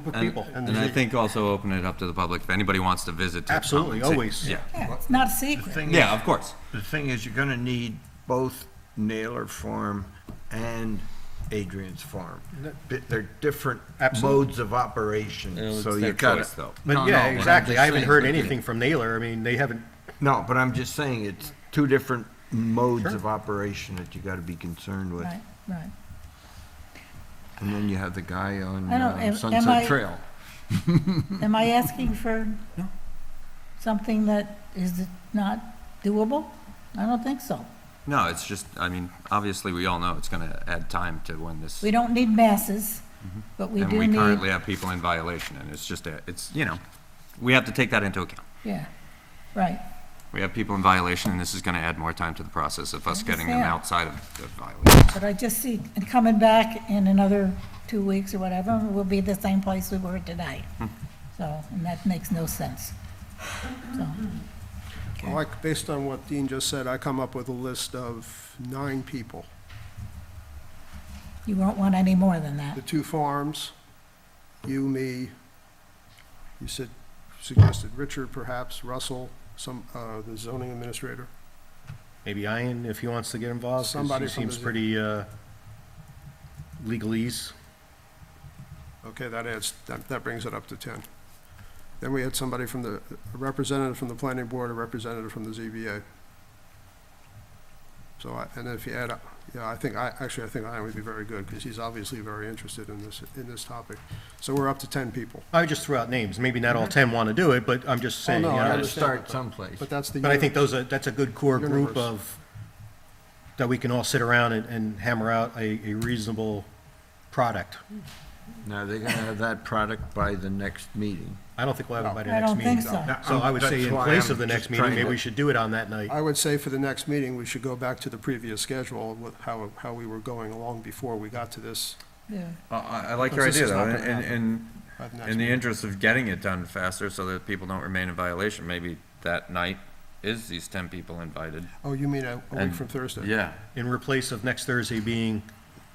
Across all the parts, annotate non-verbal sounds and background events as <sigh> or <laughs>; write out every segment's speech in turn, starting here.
group of And- people. And I think also open it up to the public, if anybody wants to visit. to come and Absolutely, see. always. Yeah, Yeah, it's not a The secret. thing yeah, is- of course. The thing is, you're gonna need both Naylor Farm and Adrian's Farm. Bi- They're different Absolutely. modes of operation, It's so their you gotta. choice, though. No, But no, yeah, but I'm exactly. just I haven't saying, heard but- anything from Naylor. I mean, they haven't, No, but I'm just saying, it's two different modes Sure. of operation that you gotta be concerned with. Right, right. And then you have the guy on I don't- uh, am- am I- Sunset Trail. Am I asking for something that is not doable? I don't think so. No, it's just, I mean, obviously, we all know it's gonna add time to when this. We don't need masses, but we And do we currently need, have people in violation, and it's just, a- it's, you know, we have to take that into account. yeah, right. We have people in violation, and this is gonna add more time to the process of us getting them outside Understand. of of violation. But I just see, and coming back in another two weeks or whatever, we'll be the same place we were today. So, and that makes no sense. So, Well, like, based on what Dean just said, I come up with a list of nine people. you won't want any more than that. The two farms, you, me, you said, suggested Richard perhaps, Russell, some, uh, the zoning administrator. maybe Ian, if he wants to get involved, 'cause Somebody he from seems the- pretty, uh, legalese. Okay, that adds, that, that brings it up to ten. Then we had somebody from the, a representative from the planning board, a representative from the ZBA. So I, and if you add, up- yeah, I think, I, actually, I think Ian would be very good, because he's obviously very interested in this, in this topic. So we're up to ten people. I would just threw out names. Maybe not all ten want to do it, but I'm just saying, Mm-hmm. Oh, no, you I know, Gotta understand. start someplace. But that's the. But I think unit. those are, that's a good core group Universe. of, that we can all sit around and, and hammer out a, a reasonable product. Now, they're gonna have that product by the next meeting. I don't think we'll have it by the I next don't meeting. think so. No, So I would say that's in why place I'm of the just next meeting, trying maybe to- we should do it on that night. I would say for the next meeting, we should go back to the previous schedule, with how, how we were going along before we got to this. Uh, Yeah. I, I like your Because this idea, is not though, gonna and- and, by next in the meeting. interest of getting it done faster so that people don't remain in violation, maybe that night is these ten people invited. Oh, you mean a a week And- from Thursday? Yeah. In replace of next Thursday being,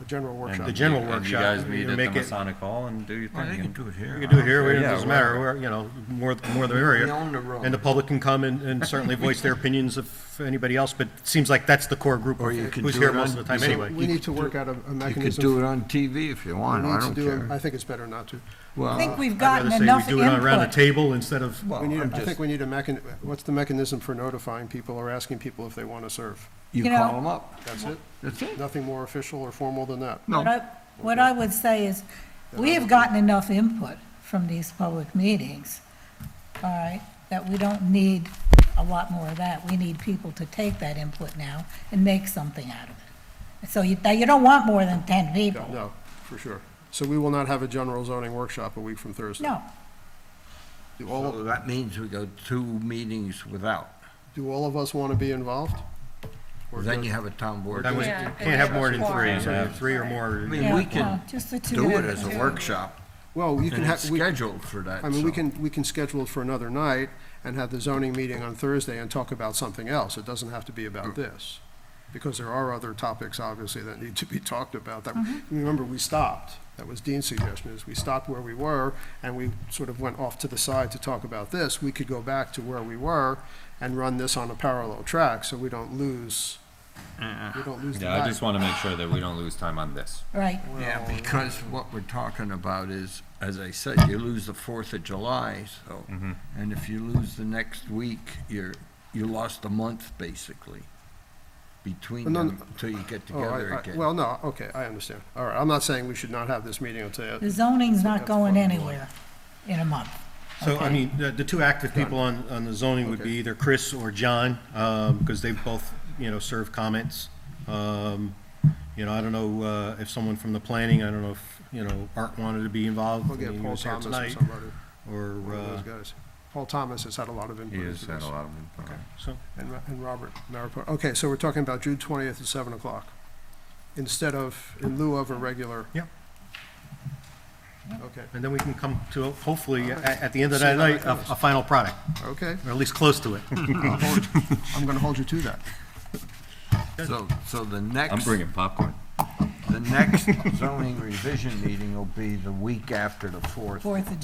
A general and workshop. The general you- and workshop, You guys meet you at make the it- Masonic Hall and do your thing. and- do it here. we can do it here, Yeah, it doesn't whatever. matter, We're, you know, more, the more the merrier. We own the road. And the public can come and, and certainly voice their opinions if anybody else, but it seems like that's the core group Or you of can who's do here it most on- of the time so anyway. We need to work out a- a You could mechanism. do it on TV if you We want, I need to don't do it- I care. think it's better not to. I Well, think we've I'd rather gotten say enough we do it around the input. table instead of, We need, well, a- I'm I think just, we need a mechan, what's the mechanism for notifying people or asking people if they want to serve? you you know- call them up, That's it? that's it. Nothing more official or formal than that? What I, what I would say is, we have gotten enough input from these public meetings, all right, that we don't need a lot more of that. We need people to take that input now and make something out of it. So you, now, you don't want more than ten people. No, for sure. So we will not have a general zoning workshop a week from Thursday? No, Do all, So that means we go two meetings without. do all of us want to be involved? Or Then does- you have a town board. that was, Yeah, can't have more than four. three, so three or more. I mean, yeah, we no, can just the two. do of it as us. a workshop, Well, you can and it's have, we- scheduled for that. I mean, we so- can, we can schedule it for another night and have the zoning meeting on Thursday and talk about something else. It doesn't have to be about this. Because there are other topics, obviously, that need to be <laughs> talked about. That, remember, we stopped. That was Dean's suggestion, is we stopped where we were and we sort of went off to the side to talk about this. We could go back to where we were and run this on a parallel track so we don't lose, we don't lose the Yeah, I back. just want to make sure that we don't lose time on this. Right, Yeah, because what we're talking about is, as I said, you lose the Fourth of July, so, Mm-hmm. and if you lose the next week, you're, you lost a month, basically, between And then- them, until you get Oh, I- together I- again. Well, no, okay, I understand. All right, I'm not saying we should not have this meeting until, the zoning's not That's going fine. anywhere in a month. So, I Okay. mean, the, the two active people on, on the zoning would be either Chris or John, um, because they've both, you know, served comments. Um, you know, I don't know, uh, if someone from the planning, I don't know if, you know, Art wanted to be involved. we'll I mean, get he Paul was here Thomas or tonight, somebody. Or, one of those uh, guys. Paul Thomas has had a lot of input. into this. uh, lot of. so, And, Ro- and Robert Maripor. Okay, so we're talking about June twentieth at seven o'clock, instead of, in lieu of a regular. Yep. Okay, and then we can come to, hopefully, at, at the end of See that how night, that a, goes. a final product, okay. or at least close to it. I'll hold- I'm gonna hold you to that. So, so the next, popcorn. the next zoning revision meeting will be the week after the fourth. Fourth of